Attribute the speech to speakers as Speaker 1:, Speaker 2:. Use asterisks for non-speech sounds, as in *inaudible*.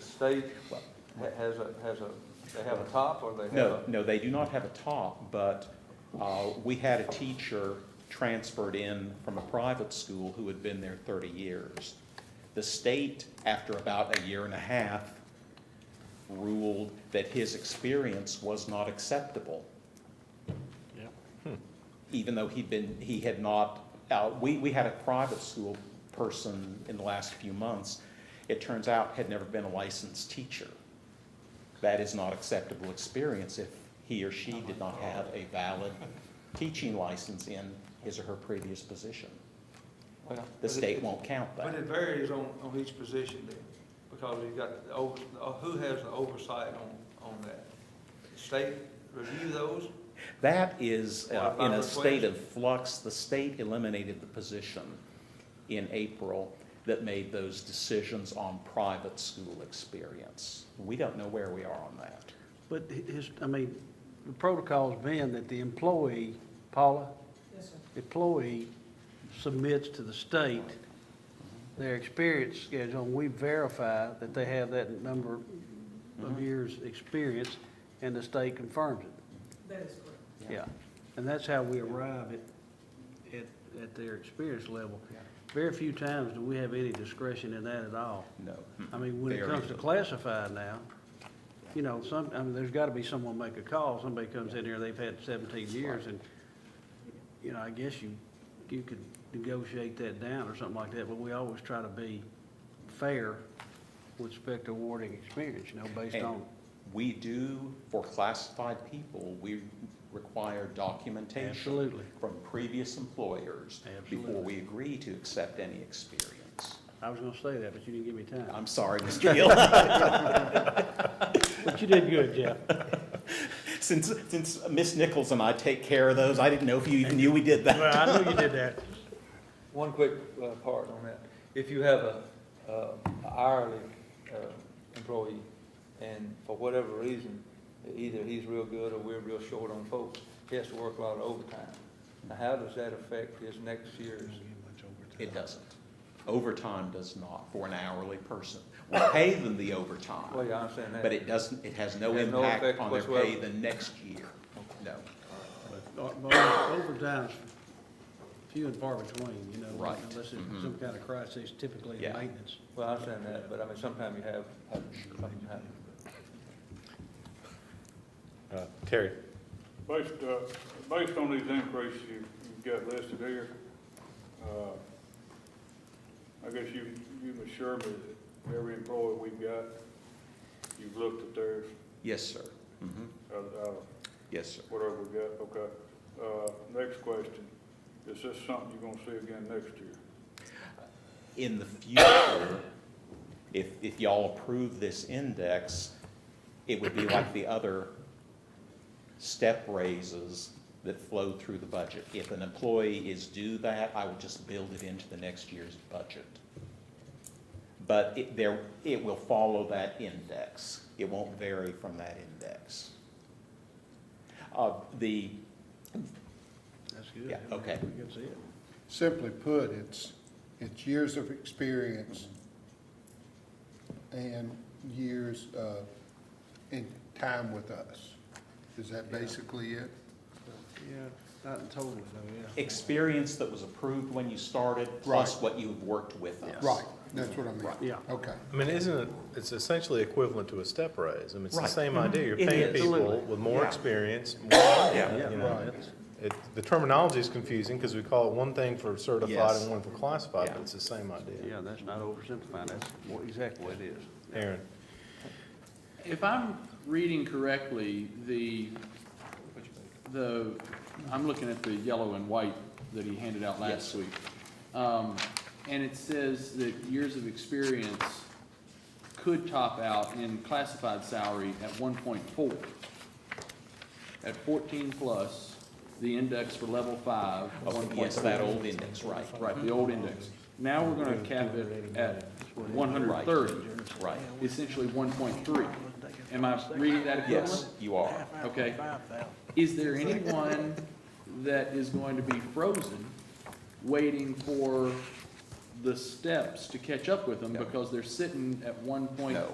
Speaker 1: stage ha- has a, has a, they have a top or they have
Speaker 2: No,
Speaker 1: a?
Speaker 2: no, they do not have a top, but uh, we had a teacher transferred in from a private school who had been there 30 years. The state, after about a year and a half, ruled that his experience was not acceptable,
Speaker 3: Yeah.
Speaker 2: even though he'd been, he had not, uh, we, we had a private school person in the last few months, it turns out had never been a licensed teacher. that is not acceptable experience if he or she did not have a valid teaching license in his or her previous position.
Speaker 1: Well,
Speaker 2: The
Speaker 1: but it-
Speaker 2: state won't count
Speaker 1: But
Speaker 2: that.
Speaker 1: it varies on, on each position then, because you got, the over- uh, who has the oversight on, on that? The State review those?
Speaker 2: That is uh, in a
Speaker 1: Qualified
Speaker 2: state of flux. The state eliminated the position in April that made those decisions on private school experience. We don't know where we are on that.
Speaker 3: But hi- his, I mean, the protocol's been that the employee, Paula? Employee submits to the state their experience schedule, and we verify that they have that number of years' experience, and the state confirms it.
Speaker 4: That is correct.
Speaker 3: Yeah. And that's how we arrive at, at, at their experience level.
Speaker 2: Yeah.
Speaker 3: Very few times do we have any discretion in that at all.
Speaker 2: No.
Speaker 3: I mean, when it
Speaker 2: Very
Speaker 3: comes to
Speaker 2: little.
Speaker 3: classified now, you know, some, I mean, there's gotta be someone make a call, somebody comes in here, they've had seventeen years, and, you know, I guess you, you could negotiate that down or something like that, but we always try to be fair with respect to awarding experience, you know, based
Speaker 2: And
Speaker 3: on,
Speaker 2: We do, for classified people, we require documentation.
Speaker 3: Absolutely.
Speaker 2: From previous employers. Before
Speaker 3: Absolutely.
Speaker 2: we agree to accept any experience.
Speaker 3: I was gonna say that, but you didn't give me time.
Speaker 2: I'm sorry, Mr. Gill.
Speaker 3: But you did good, Jeff.
Speaker 2: Since, since Ms. Nichols and I take care of those, I didn't know if you even knew we did that.
Speaker 3: Well, I knew you did that.
Speaker 1: One quick uh, part on that. If you have a uh, hourly uh, employee, and for whatever reason, either he's real good or we're real short on folks, he has to work a lot of overtime. Now, how does that affect his next year's?
Speaker 2: It doesn't. Overtime does not for an hourly person. We pay them the
Speaker 1: Well,
Speaker 2: overtime,
Speaker 1: yeah, I understand that.
Speaker 2: but it doesn't, it has no
Speaker 1: Has no
Speaker 2: impact
Speaker 1: effect
Speaker 2: on their pay
Speaker 1: whatsoever.
Speaker 2: the next year. No,
Speaker 3: Overtime's uh, few and far between, you know.
Speaker 2: Right.
Speaker 3: Unless it's
Speaker 2: Mhm.
Speaker 3: some kind of crisis, typically in
Speaker 2: Yeah.
Speaker 3: maintenance.
Speaker 1: Well, I understand that, but I mean, sometimes you have, have- something happen.
Speaker 5: Uh, Terry,
Speaker 6: Based, uh, based on these increases you- you've got listed here, uh, I guess you, you've assured me that every employee we've got, you've looked at theirs,
Speaker 2: yes, sir. Mhm.
Speaker 6: out of- out of
Speaker 2: Yes, sir.
Speaker 6: whatever we got, okay. Uh, Next question, is this something you're gonna see again next year?
Speaker 2: in the future, if, if y'all approve this index, it would be like the other step raises that flow through the budget. If an employee is due that, I would just build it into the next year's budget. But it, there, it will follow that index. It won't vary from that index. Uh, the,
Speaker 3: That's good.
Speaker 2: Yeah, okay.
Speaker 3: We can see it.
Speaker 7: Simply put, it's, it's years of experience and years uh, in time with us. Is that
Speaker 3: Yeah.
Speaker 7: basically it?
Speaker 3: Yeah, not totally, though, yeah.
Speaker 2: experience that was approved when you started, plus what you have worked with us.
Speaker 7: Right, that's what I mean.
Speaker 3: Yeah.
Speaker 7: Okay.
Speaker 5: I mean, isn't it, it's essentially equivalent to a step raise. I mean, it's the
Speaker 2: Right.
Speaker 5: same idea. You're
Speaker 2: It
Speaker 5: paying
Speaker 2: is.
Speaker 5: people
Speaker 3: Absolutely.
Speaker 5: with more
Speaker 2: Yeah.
Speaker 5: experience. more,
Speaker 2: *coughs* Yeah.
Speaker 5: you
Speaker 7: Right.
Speaker 5: know. It, the terminology is confusing because we call it one thing for certified
Speaker 2: Yes.
Speaker 5: and one for classified,
Speaker 2: Yeah.
Speaker 5: but it's the same idea.
Speaker 3: Yeah, that's not oversimplifying, that's what- exactly what it is.
Speaker 5: Aaron,
Speaker 8: If I'm reading correctly, the, the, I'm looking at the yellow and white that he handed out
Speaker 2: Yes.
Speaker 8: last week. Um, And it says that years of experience could top out in classified salary at one point four. At fourteen plus, the index for level five, one
Speaker 2: Oh,
Speaker 8: point four.
Speaker 2: yes, that old index, right,
Speaker 8: Right, the old index. Now we're gonna cap it at one hundred thirty
Speaker 2: right.
Speaker 8: essentially one point three. Am I reading that equivalent?
Speaker 2: Yes, you are.
Speaker 8: Okay. Is there anyone that is going to be frozen, waiting for the steps to catch up with them
Speaker 2: No.
Speaker 8: because they're sitting at one point
Speaker 2: No.